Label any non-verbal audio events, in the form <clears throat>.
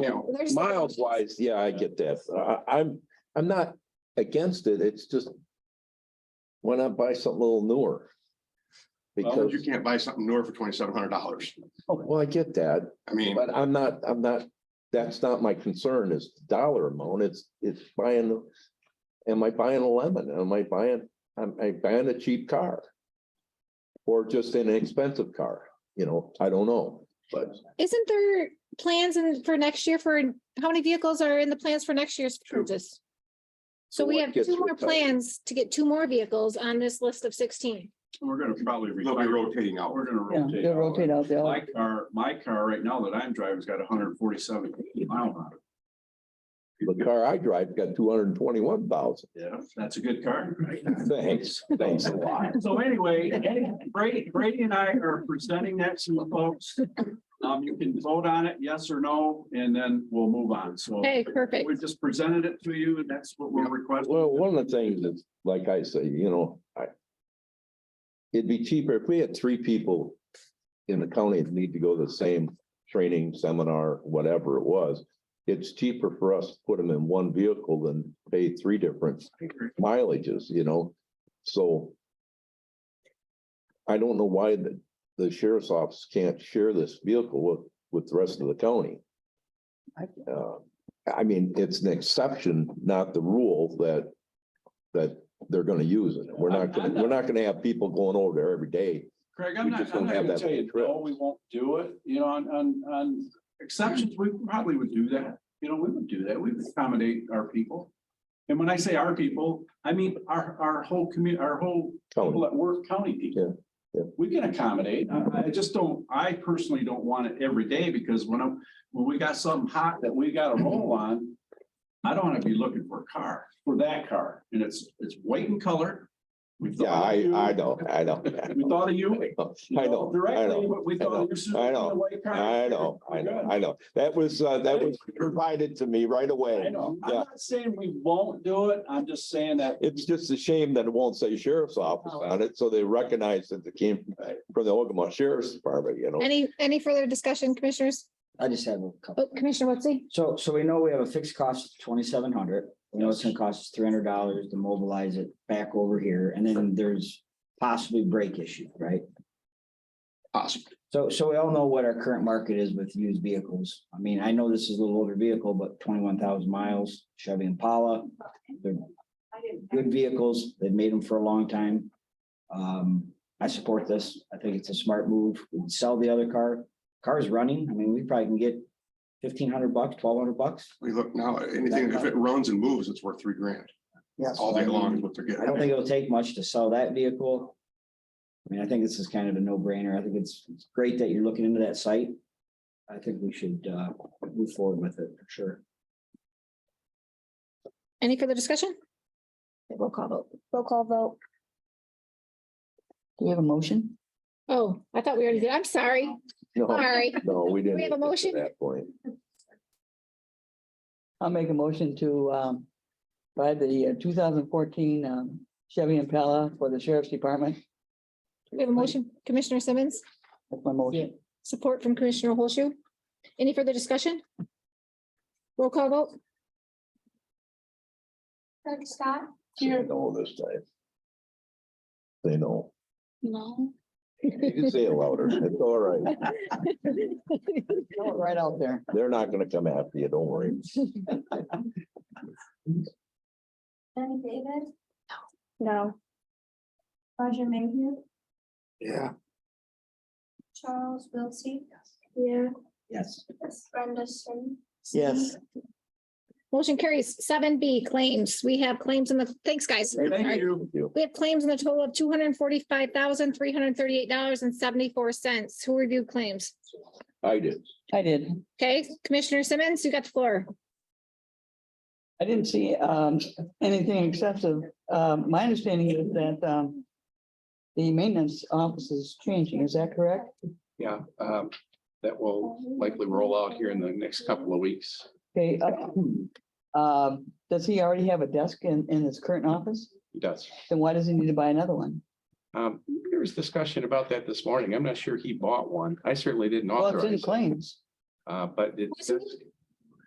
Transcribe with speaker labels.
Speaker 1: know,
Speaker 2: There's-
Speaker 1: miles wise, yeah, I get that. I, I'm, I'm not against it. It's just. Why not buy something a little newer?
Speaker 3: Well, you
Speaker 1: Because,
Speaker 3: can't buy something newer for twenty-seven hundred dollars.
Speaker 1: well, I get that,
Speaker 3: I mean,
Speaker 1: but I'm not, I'm not, that's not my concern is the dollar amount. It's, it's buying. Am I buying a lemon? Am I buying, am I buying a cheap car? Or just an expensive car, you know, I don't know, but
Speaker 2: Isn't there plans and for next year for, how many vehicles are in the plans for next year's purchase? So
Speaker 1: So
Speaker 2: we
Speaker 1: what
Speaker 2: have
Speaker 1: gets
Speaker 2: two more
Speaker 1: retired?
Speaker 2: plans to get two more vehicles on this list of sixteen.
Speaker 4: We're gonna probably.
Speaker 3: they'll be
Speaker 4: retire.
Speaker 3: rotating out.
Speaker 4: We're gonna
Speaker 5: Yeah,
Speaker 4: rotate.
Speaker 5: they
Speaker 4: all of
Speaker 5: rotate
Speaker 4: it.
Speaker 5: out the.
Speaker 4: My car, my car right now that I'm driving's got hundred and forty-seven mile on it.
Speaker 1: the car I drive got two hundred and twenty-one <laughs> thousand.
Speaker 4: Yeah, that's a good car.
Speaker 1: Thanks, thanks a lot.
Speaker 4: So anyway, Brady, Brady and I are presenting that to the folks. Um, you can vote on it, yes or no, and then we'll move on. So
Speaker 2: Okay, perfect.
Speaker 4: we just presented it to you and that's what we're requesting.
Speaker 1: Well, one of the things is, like I say, you know, I. It'd be cheaper if we had three people in the county that need to go to the same training seminar, whatever it was. It's cheaper for us to put them in one vehicle than pay three different mileages, you know, so. I don't know why the, the sheriff's office can't share this vehicle with, with the rest of the county. Uh, I mean, it's an exception, not the rule that, that they're gonna use it. We're not, gonna we're not gonna have people going over there every day.
Speaker 4: Craig, I'm
Speaker 1: We
Speaker 4: not,
Speaker 1: just
Speaker 4: I'm
Speaker 1: don't
Speaker 4: not
Speaker 1: have
Speaker 4: gonna
Speaker 1: that
Speaker 4: tell you,
Speaker 1: trip.
Speaker 4: no, we won't do it, you know, on, on, on exceptions, we probably would do that. You know, we would do that, we would accommodate our people. And when I say our people, I mean our, our whole community, our whole people
Speaker 1: County.
Speaker 4: that work county people.
Speaker 1: Yeah,
Speaker 4: We can accommodate, I, I just don't, I personally don't want it every day, because when I'm, when we got something hot that we gotta roll on. I don't wanna be looking for a car, for that car, and it's, it's white in color. We thought
Speaker 1: Yeah,
Speaker 4: of
Speaker 1: I,
Speaker 4: you.
Speaker 1: I know,
Speaker 4: <laughs>
Speaker 1: I know.
Speaker 4: We thought of you.
Speaker 1: I know, I
Speaker 4: Directly,
Speaker 1: know,
Speaker 4: but we
Speaker 1: I know,
Speaker 4: thought you should.
Speaker 1: I know, I know, I know, I know. That was, uh, that was provided to me right
Speaker 4: I
Speaker 1: away.
Speaker 4: know. I'm
Speaker 1: Yeah.
Speaker 4: not saying we won't do it. I'm just saying that.
Speaker 1: It's just a shame that it won't say sheriff's office on it, so they recognize that it came from the Ogama Sheriff's Department, you know.
Speaker 2: Any, any further discussion, commissioners?
Speaker 6: I just have a couple.
Speaker 2: Oh, Commissioner Wotsie?
Speaker 6: So, so we know we have a fixed cost of twenty-seven hundred. We know it's gonna cost us three hundred dollars to mobilize it back over here, and then there's possibly break issue, right?
Speaker 3: Possible.
Speaker 6: So, so we all know what our current market is with used vehicles. I mean, I know this is a little older vehicle, but twenty-one thousand miles Chevy Impala. They're good vehicles. They've made them for a long time. Um, I support this. I think it's a smart move. We can Sell the other car. Car's running. I mean, we probably can get fifteen hundred bucks, twelve hundred bucks.
Speaker 3: We look now, anything, if it runs and moves, it's worth three grand
Speaker 6: Yes.
Speaker 3: all day long is what they're
Speaker 6: I don't
Speaker 3: getting.
Speaker 6: think it'll take much to sell that vehicle. I mean, I think this is kind of a no-brainer. I think it's, it's great that you're looking into that site. I think we should, uh, move forward with it for sure.
Speaker 2: Any further discussion? Roll call vote. Roll call vote.
Speaker 5: Do we have a motion?
Speaker 2: Oh, I thought we already did. I'm sorry.
Speaker 1: No,
Speaker 2: Sorry.
Speaker 1: no, we didn't.
Speaker 2: We have a
Speaker 1: get to
Speaker 2: motion?
Speaker 1: That point.
Speaker 5: I'll make a motion to um buy the uh, two thousand fourteen um Chevy Impala for the sheriff's department.
Speaker 2: We have a motion. Commissioner Simmons,
Speaker 5: That's my motion.
Speaker 2: support from Commissioner Holshu. Any further discussion? Roll call vote.
Speaker 7: Craig Scott?
Speaker 1: Say No, this time. They know.
Speaker 7: No.
Speaker 1: You can say it louder. It's all right.
Speaker 5: <laughs> Throw it Right out there.
Speaker 1: They're not gonna come after you,
Speaker 2: <laughs>
Speaker 1: don't worry.
Speaker 7: Jenny David?
Speaker 2: No.
Speaker 7: Roger Mayhew?
Speaker 3: Yeah.
Speaker 7: Charles Wiltie?
Speaker 2: Yeah.
Speaker 6: Yes.
Speaker 7: Brenda Sim?
Speaker 5: Yes.
Speaker 2: Motion carries seven B claims. We have claims in the, thanks, guys.
Speaker 4: Thank you.
Speaker 2: We have claims in the total of two hundred and forty-five thousand, three hundred and thirty-eight dollars and seventy-four cents. Who reviewed claims?
Speaker 1: I did.
Speaker 5: I did.
Speaker 2: Okay, Commissioner Simmons, you got the floor.
Speaker 5: I didn't see um anything excessive. Um, my understanding is that um the maintenance office is changing. Is that correct?
Speaker 8: Yeah, um, that will likely roll out here in the next couple of weeks.
Speaker 5: Okay. uh, <clears throat> Um, does he already have a desk in in his current office?
Speaker 8: He does.
Speaker 5: Then why does he need to buy another one?
Speaker 8: Um, there was discussion about that this morning. I'm not sure he bought one. I certainly didn't
Speaker 5: Well, it's in
Speaker 8: authorize. it.
Speaker 5: claims.
Speaker 8: Uh, but it,
Speaker 2: Wasn't